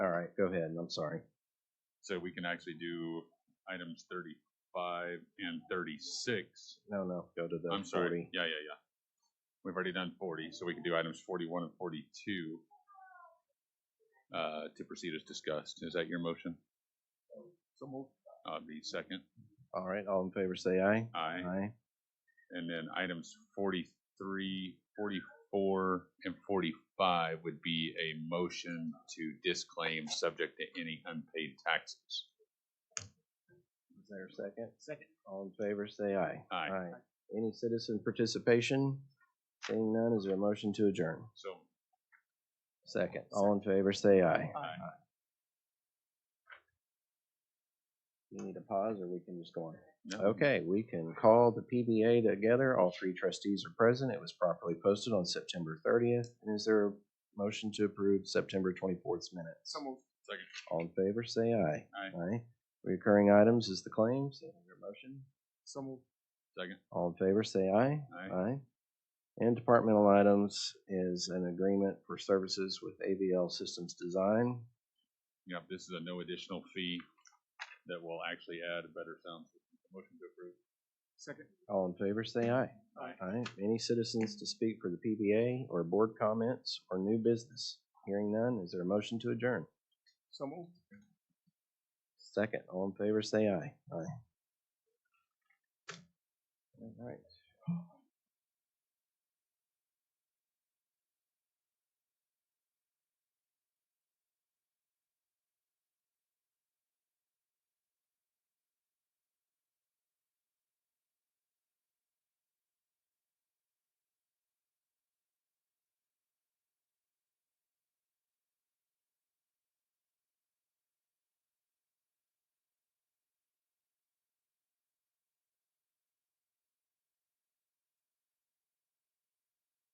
go ahead. I'm sorry. So we can actually do items thirty-five and thirty-six. No, no, go to the I'm 40. sorry, yeah, yeah, yeah. We've already done forty, so we can do items forty-one and forty-two uh, to proceed as discussed. Is that your motion? So moved. Uh, the second, All right, all in favor say aye. aye. And then items 43, 44, and 45 would be a motion to disclaim subject to any unpaid taxes. Is there a second? Second. All in favor say aye. Aye. Any citizen participation? Seeing none, is there a motion to adjourn? So, Second. All in favor say aye. Aye. We need a pause or we can just go on? no. Okay, we can call the PBA together. All three trustees are present. It was properly posted on September thirtieth. And is there a motion to approve September twenty-fourth minutes? Second. All in favor, say aye. Aye. Aye. Recurring items is the claims. Is there a motion? Second. All in favor, say aye. Aye. Aye. And departmental items is an agreement for services with AVL Systems Design. Yeah, this is a no additional fee that will actually add a better sound. system. Motion to approve. Second. All in favor, say aye. Aye. Aye. Any citizens to speak for the PBA or board comments or new business? Hearing none, is there a motion to adjourn? So moved. Second, all in favor, say aye. Aye. All right.